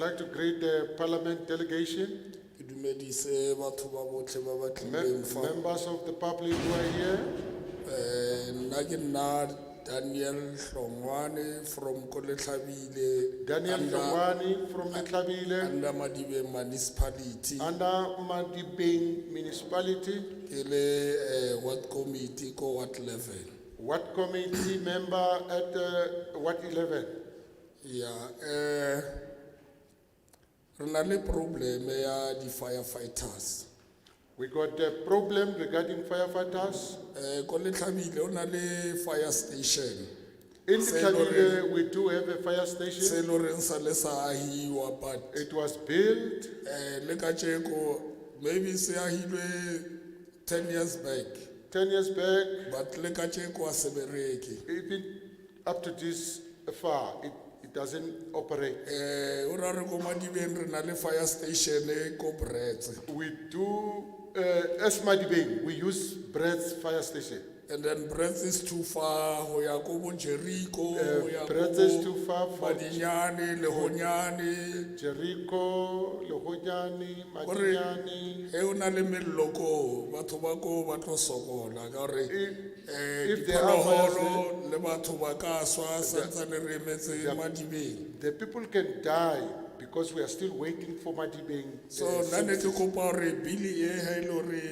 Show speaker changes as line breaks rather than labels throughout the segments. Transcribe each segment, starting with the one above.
I'd like to greet the parliament delegation,
ke dumedise batho ba botlhe ba ba
me-
tlileng fa
members of the public who are here.
Eh, nna ke nna daniel hlongwane from koletlhabile
Daniel
uh,
Tlongwani from Metlabile,
under madibe municipality
under Madibeng Municipality,
ke le eh, ward committee ko ward level
Ward Committee member at uh, Ward 11.
ya eh re na le probleme ya di-firefighters
We got a problem regarding firefighters.
um koletlhabile o na le fire station
In
Say
Metlabile, we do have a fire
se e
station.
le goreng sa le sa agiwa but
It was built,
Eh, le kajeko maybe se ahilwe 10 years back
ten years back,
but le kajeko asebereki
even up to this far, it, it doesn't operate.
eh ora re ko madibeng re na le fire station e ko bretse
We do, uh, as Madibeng, we use Brett's fire station.
and then bretse is too far ho ya ko bo jericho
Eh,
ho ya ko
Brits is too far
bo
for-
madinyane le honyane
Jericho, Lohojani, Madinyani.
e o na le mello ko batho ba ko ba tlo sokola ka gore
If-
eh
if there are fires eh,
diphologolo le batho ba ka swa santsane re emetse madibeng
The people can die because we are still waiting for Madibeng.
so
uh,
nna ne ke kopa gore bili e ga e le gore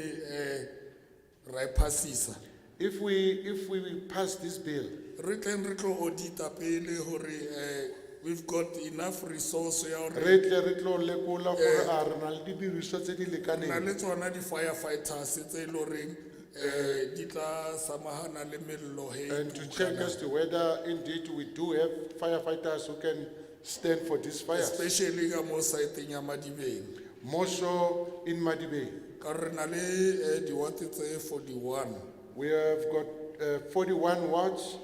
um ra e phasisa
If we, if we pass this bill,
re tleng re tlo audita pele gore um we've got enough resource ya gore
re tle re tlo lekola gore a re na le didiriswa tse di
re na
lekaneng.
le tsona di-firefighters tse e le goreng um di tla samagana le melelo he
And to check as to whether indeed we do have firefighters who can stand for this fire,
especially ka mo saeteng ya madibeng
more so in Madibeng.
ka gore re na le um diwate tse forty-one
We have got uh, 41 wards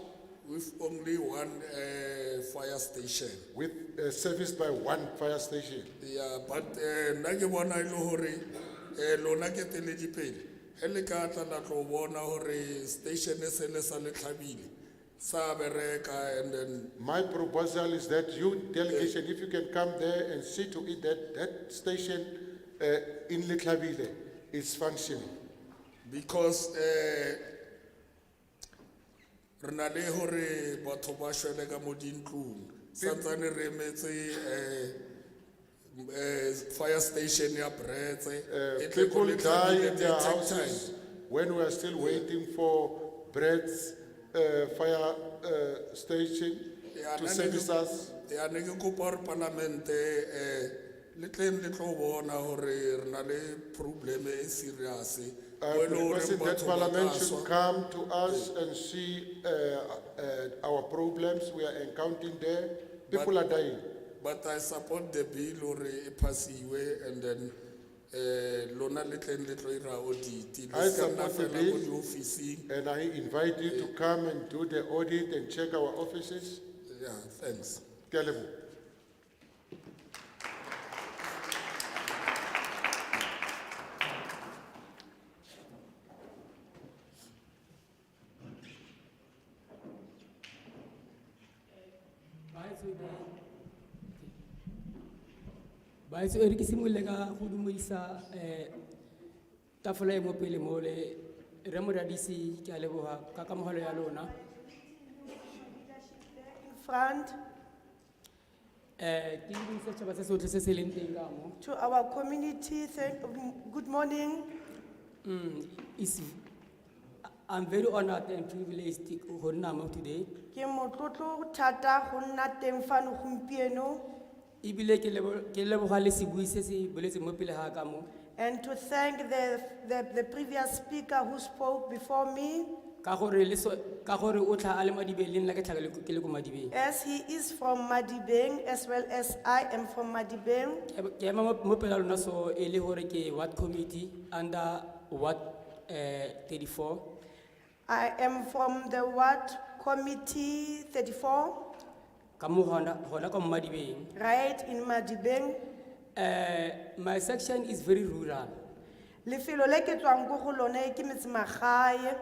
with only one um fire station
with uh, serviced by one fire station.
Yeah, but eh nna ke bona e le hore eh lona ke teledipele ge le ka tla la tlo bona hore station e se le sa le tlhabile sa bereka and then
My proposal is that you delegation, if you can come there and see to it that that station uh, in Litlavile is functioning.
because eh re na le hore batho ba shwele ka mo dintlong santsane re emetse eh eh fire station ya bretse
Uh,
e tle
people
ko le
die
Tlhabile
in
at
their
the same time.
houses when we are still waiting for Brett's uh, fire uh, station
Yeah,
to
that
service
is-
us.
ya ne ke kopa gore palamente um le tleng le tlo bona gore re na le probleme e serious
I'm
mo e le horeng
requesting that
batho ba ka
Parliament
swa.
should come to us and see uh, uh, our problems we are encountering there. People are dying.
but i support the bill gore e phasiwe and then um lona le tleng le tlo 'ira audit
I
le se ka nna
support the
fela ko
bill.
diofising
And I invite you to come and do the audit and check our offices.
yeah thanks
Ke a leboha.
baetso e re ke simolole ka go dumedisa um tafola e mo pele mole re moradisi ke a leboga ka kamogelo ya lona
front
um ke dumedisa setšhaba se sotlhe se se leng teng ka mo
to our community. Thank, good morning.
Mm, it's- i'm very honored and privileged go nna mo today
Ke motlotlo thata go nna teng fano gompieno
ebile ke lebo- ke leboga le sebui se se boletseng mo pele ga ka mo
and to thank the, the, the previous speaker who spoke before me.
ka gore le so- ka gore o tlha a le madibeng le nna ke tlha ke le ko- ke le ko madibeng
As he is from Madibeng as well as I am from Madibeng.
ke ema mo- mo pela lona so e le gore ke ward committee under ward eh, 34
I am from the ward committee thirty-four,
ka mo gona gona ka mmadibeng
right in Madibeng.
um my section is very rural
Lefelo le ke tswang ko go lone ke metsemagae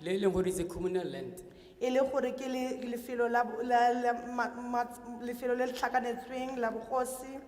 le e leng gore it's a communal land
e le gore ke le- lefelo la bo- la- la ma- ma- lefelo le le tlhakanetsweng la bogosi